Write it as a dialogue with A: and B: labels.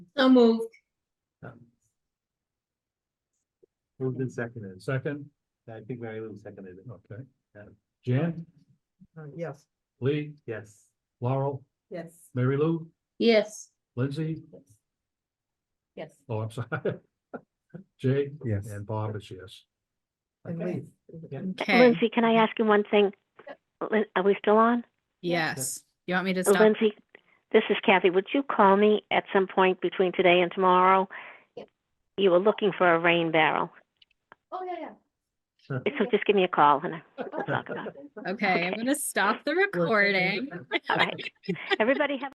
A: So moved.
B: Moved and seconded.
C: Second,
B: I think Mary Lou seconded it.
C: okay. Jan,
D: Uh, Yes.
C: Lee,
B: Yes.
C: Laurel,
D: Yes.
C: Mary Lou,
A: Yes.
C: Lindsay,
A: Yes.
C: oh, I'm sorry. Jay
B: Yes.
C: and Bob is yes.
D: And
B: Okay.
D: Lee.
E: Okay,
F: Lindsay, can I ask you one thing? Lin- Are we still on?
E: yes. You want me to
F: Oh,
E: stop?
F: Lindsay, this is Kathy. Would you call me at some point between today and tomorrow?
A: Yep.
F: You were looking for a rain barrel.
A: Oh, yeah,
F: So just give me a call and I- we'll talk about it.
E: Okay, I'm gonna stop the
D: Lindsay.
E: recording.
F: All right. Everybody have